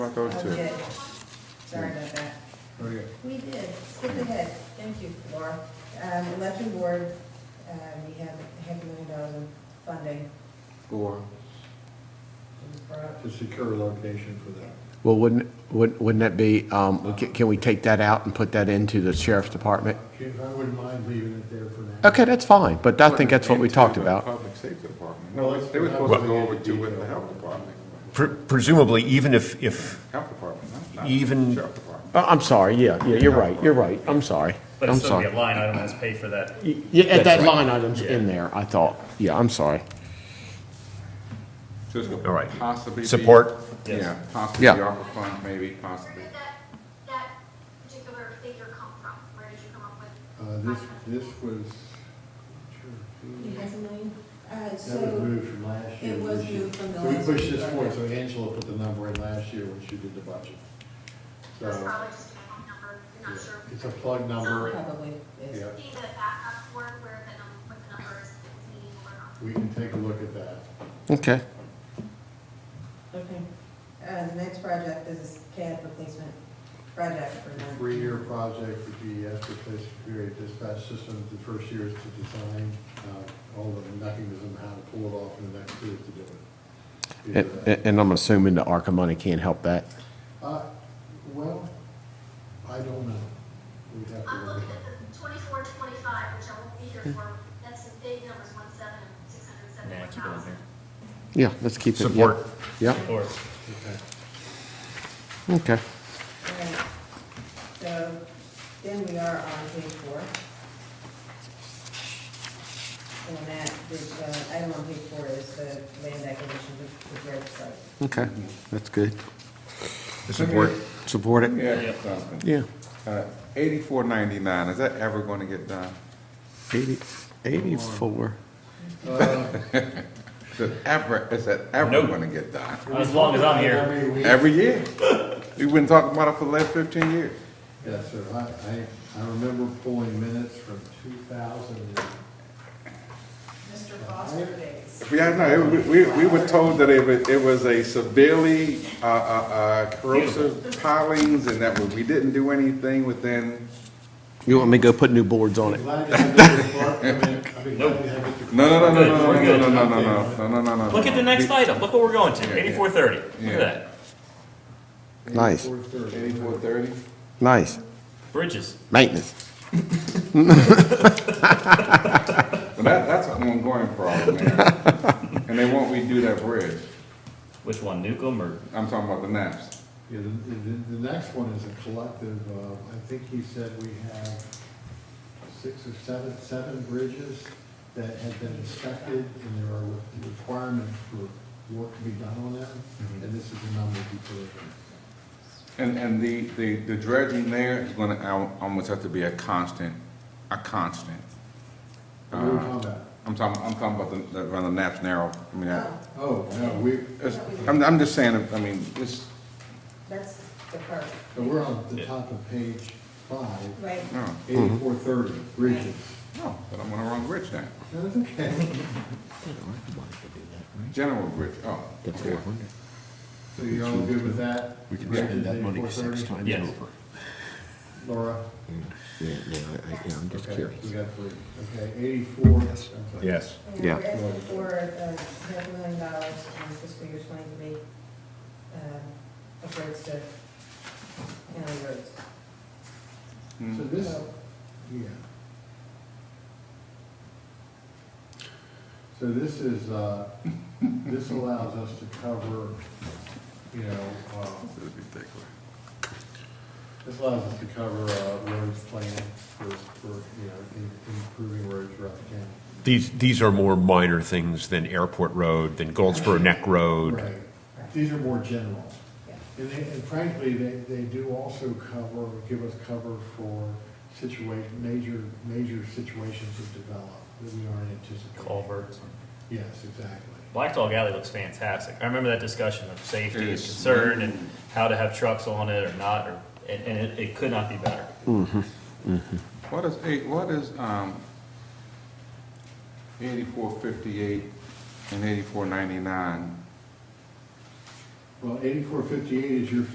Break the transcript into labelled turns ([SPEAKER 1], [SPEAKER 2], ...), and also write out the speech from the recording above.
[SPEAKER 1] About those
[SPEAKER 2] I
[SPEAKER 1] two.
[SPEAKER 2] did. Sorry about that.
[SPEAKER 3] Oh, yeah.
[SPEAKER 2] We did, skip ahead, thank you, Laura. Um, election board, uh, we have half a million dollars in funding.
[SPEAKER 1] Or,
[SPEAKER 2] It was brought up.
[SPEAKER 3] To secure a location for that.
[SPEAKER 4] Well, wouldn't, wouldn't wouldn't that be, um, we ca- can we take that out and put that into the sheriff's department?
[SPEAKER 3] If I wouldn't mind leaving it there for now.
[SPEAKER 4] Okay, that's fine, but I think that's what we
[SPEAKER 1] Into
[SPEAKER 4] talked
[SPEAKER 1] the
[SPEAKER 4] about.
[SPEAKER 1] Public safety department.
[SPEAKER 3] No,
[SPEAKER 1] No,
[SPEAKER 3] it's-
[SPEAKER 1] they were
[SPEAKER 3] we're
[SPEAKER 1] supposed
[SPEAKER 3] not
[SPEAKER 1] to
[SPEAKER 3] going
[SPEAKER 1] go over
[SPEAKER 3] into
[SPEAKER 1] to with the
[SPEAKER 3] detail.
[SPEAKER 1] health department.
[SPEAKER 5] Pre- Presumably, even if, if,
[SPEAKER 1] Health department, not- not
[SPEAKER 5] Even-
[SPEAKER 1] sheriff department.
[SPEAKER 4] Oh, I'm sorry, yeah, yeah, you're right, you're right, I'm sorry,
[SPEAKER 6] But
[SPEAKER 4] I'm
[SPEAKER 6] it's still be a
[SPEAKER 4] sorry.
[SPEAKER 6] line item that's paid for that.
[SPEAKER 4] Y- Yeah, at
[SPEAKER 5] That's
[SPEAKER 4] that
[SPEAKER 5] right.
[SPEAKER 4] line item's in there, I thought, yeah, I'm sorry.
[SPEAKER 1] So it's gonna
[SPEAKER 5] All right.
[SPEAKER 1] Possibly. be-
[SPEAKER 5] Support?
[SPEAKER 1] Yeah,
[SPEAKER 6] Yes.
[SPEAKER 1] possibly
[SPEAKER 4] Yeah.
[SPEAKER 1] ARPA funds, maybe, possibly.
[SPEAKER 7] Where did that, that particular figure come from? Where did you come up with?
[SPEAKER 3] Uh, this,
[SPEAKER 7] $500,000?
[SPEAKER 3] this was,
[SPEAKER 2] You have a million? Uh,
[SPEAKER 3] that was
[SPEAKER 2] so,
[SPEAKER 3] moved from last
[SPEAKER 2] it
[SPEAKER 3] year.
[SPEAKER 2] was
[SPEAKER 3] this year.
[SPEAKER 2] moved from the
[SPEAKER 3] So
[SPEAKER 2] last
[SPEAKER 3] We pushed
[SPEAKER 2] year.
[SPEAKER 3] this forward, so Angela put the number in last year when she did the budget.
[SPEAKER 7] It was
[SPEAKER 3] So,
[SPEAKER 7] probably just a phone number, you're not sure.
[SPEAKER 3] it's a plug number,
[SPEAKER 2] probably, is.
[SPEAKER 3] yeah,
[SPEAKER 7] See the backup for it, where the, num- what the number is, if it's meaningful or not.
[SPEAKER 3] we can take a look at that.
[SPEAKER 4] Okay,
[SPEAKER 2] Okay. Uh, the next project is a CAD replacement project for nine.
[SPEAKER 3] Three-year project for GES to replace various dispatch systems. The first year is to design, uh, all the mechanism, how to pull it off, and the next year is to do it.
[SPEAKER 4] and,
[SPEAKER 3] Either that.
[SPEAKER 4] and I'm assuming the ARCA money can't help that.
[SPEAKER 3] Uh, Well, I don't know. We'd have to
[SPEAKER 7] I'm
[SPEAKER 3] look
[SPEAKER 7] looking
[SPEAKER 3] at
[SPEAKER 7] at the twenty-four, twenty-five, which I won't be here for, that's the big numbers, one seven, six hundred
[SPEAKER 6] Yeah,
[SPEAKER 7] seventy-one
[SPEAKER 6] keep it on
[SPEAKER 7] thousand.
[SPEAKER 6] there.
[SPEAKER 4] Yeah, let's keep it. yeah.
[SPEAKER 5] Support.
[SPEAKER 4] Yeah,
[SPEAKER 6] Or
[SPEAKER 3] it. Okay.
[SPEAKER 4] okay.
[SPEAKER 2] Right. So, then we are on page four. And that, the, uh, item on page four is the land acquisition of the Jared site.
[SPEAKER 4] Okay, that's good.
[SPEAKER 5] support,
[SPEAKER 4] Support it?
[SPEAKER 1] Yeah, something.
[SPEAKER 4] Yeah.
[SPEAKER 1] Uh, eighty-four ninety-nine, is that ever gonna get done?
[SPEAKER 4] Eighty, eighty-four.
[SPEAKER 1] Is it ever, is that ever
[SPEAKER 6] No.
[SPEAKER 1] gonna get done?
[SPEAKER 6] as long as I'm here.
[SPEAKER 3] Every week-
[SPEAKER 1] Every year. We've been talking about it for the last fifteen years.
[SPEAKER 3] Yes, sir. I, I, I remember pulling minutes from two thousand and,
[SPEAKER 2] Mr. Foster days.
[SPEAKER 1] Yeah, I know, we, we, we were told that it was, it was a severely, uh, uh, uh, corrosive pilings and that we didn't do anything within,
[SPEAKER 4] You want me to go put new boards on
[SPEAKER 3] I'm
[SPEAKER 4] it?
[SPEAKER 3] glad to have Mr. Clark come in. I'd be glad to have Mr. Clark.
[SPEAKER 1] no, no, no,
[SPEAKER 6] Good,
[SPEAKER 1] no, no,
[SPEAKER 6] we're
[SPEAKER 1] no,
[SPEAKER 6] good.
[SPEAKER 1] no, no, no, no, no, no, no, no.
[SPEAKER 6] Look at the next
[SPEAKER 1] We-
[SPEAKER 6] item, look what we're going to, eighty-four thirty, look
[SPEAKER 1] Yeah.
[SPEAKER 6] at that,
[SPEAKER 4] Nice.
[SPEAKER 3] 8430.
[SPEAKER 1] Eighty-four thirty?
[SPEAKER 4] Nice.
[SPEAKER 6] bridges.
[SPEAKER 4] Maintenance.
[SPEAKER 1] But that, that's an ongoing problem, man. And they won't redo that bridge.
[SPEAKER 6] Which one, Newcomb or?
[SPEAKER 1] I'm talking about the NAPS.
[SPEAKER 3] Yeah, the, the, the next one is a collective, uh, I think he said we have six or seven, seven bridges that have been inspected and there are requirements for work to be done on them. And this is the number he put in.
[SPEAKER 1] And, and the, the, the dredging there is gonna al- almost have to be a constant, a constant.
[SPEAKER 3] What are we talking about?
[SPEAKER 1] I'm talking, I'm talking about the, the- around the NAPS narrow, I mean, that.
[SPEAKER 3] Oh, no, we,
[SPEAKER 1] It's- I'm, I'm just saying, I mean, this,
[SPEAKER 2] That's the part,
[SPEAKER 3] so we're on the top of page five,
[SPEAKER 2] right?
[SPEAKER 1] no,
[SPEAKER 3] eighty-four thirty, bridges.
[SPEAKER 1] no, but I'm on the wrong bridge now.
[SPEAKER 3] No, That's okay.
[SPEAKER 1] General Bridge, oh. okay.
[SPEAKER 3] So you all good with that? We can spend that money six times.
[SPEAKER 6] Yes.
[SPEAKER 3] Laura?
[SPEAKER 4] Yeah, yeah, I'm
[SPEAKER 3] Okay, We got three. Okay, eighty-four. okay.
[SPEAKER 5] yes.
[SPEAKER 2] And we're
[SPEAKER 4] Yeah.
[SPEAKER 2] asking for uh, half a million dollars in fiscal year twenty-three, uh, of roads to county roads.
[SPEAKER 1] Mm-hmm.
[SPEAKER 3] So
[SPEAKER 2] Mm-hmm.
[SPEAKER 3] this, yeah. So this is, uh, this allows us to cover, you know, uh, this allows us to cover, uh, roads planned for, for, you know, in- improving roads throughout the county.
[SPEAKER 5] These, these are more minor things than Airport Road, than Goldsboro Neck Road.
[SPEAKER 3] Right. These are more general.
[SPEAKER 2] Yeah.
[SPEAKER 3] And they, and frankly, they, they do also cover, give us cover for situation, major, major situations that develop that we aren't anticipating.
[SPEAKER 6] Culverts.
[SPEAKER 3] Yes, exactly.
[SPEAKER 6] Black Dog Alley looks fantastic. I remember that discussion of safety and
[SPEAKER 1] Yes.
[SPEAKER 6] concern and how to have trucks on it or not, or, and, and it, it could not be better.
[SPEAKER 1] What is eight, what is, um, eighty-four fifty-eight and eighty-four ninety-nine?
[SPEAKER 3] Well, eighty-four fifty-eight is your